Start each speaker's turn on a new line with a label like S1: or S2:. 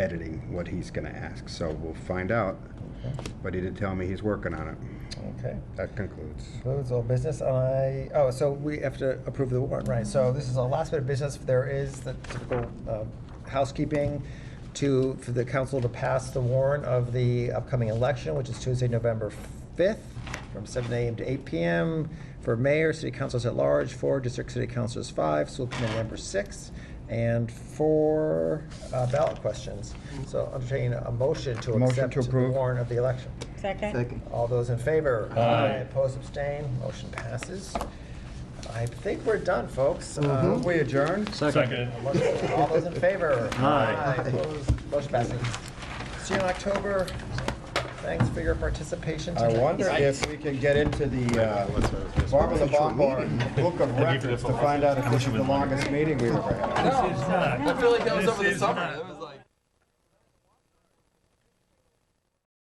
S1: editing what he's gonna ask, so we'll find out. But he did tell me he's working on it.
S2: Okay.
S1: That concludes.
S2: Concludes all business. I, oh, so we have to approve the warrant, right? So this is our last bit of business. There is the typical uh, housekeeping to, for the council to pass the warrant of the upcoming election, which is Tuesday, November 5th, from 7 AM to 8 PM for mayor, city councilors at large, four district city councilors, five, school committee members, six, and four uh, ballot questions. So entertain a motion to
S1: Motion to
S2: accept the
S1: approve.
S2: warrant of the election.
S3: Second?
S4: Second.
S2: All those in favor?
S5: Aye.
S2: Opposed, abstain, motion passes. I think we're done, folks. Uh,
S1: We adjourn?
S5: Second.
S2: motion- All those in favor?
S5: Aye.
S2: Opposed, motion passes. See you in October. Thanks for your participation
S1: I
S2: tonight.
S1: wonder if we can get into the uh, Barbara the Bombard Book of Records to find out if this is the longest meeting we've ever had.
S5: This is not.
S4: I feel like that was
S5: This
S4: over the
S5: is
S4: summer.
S5: not.
S4: That was-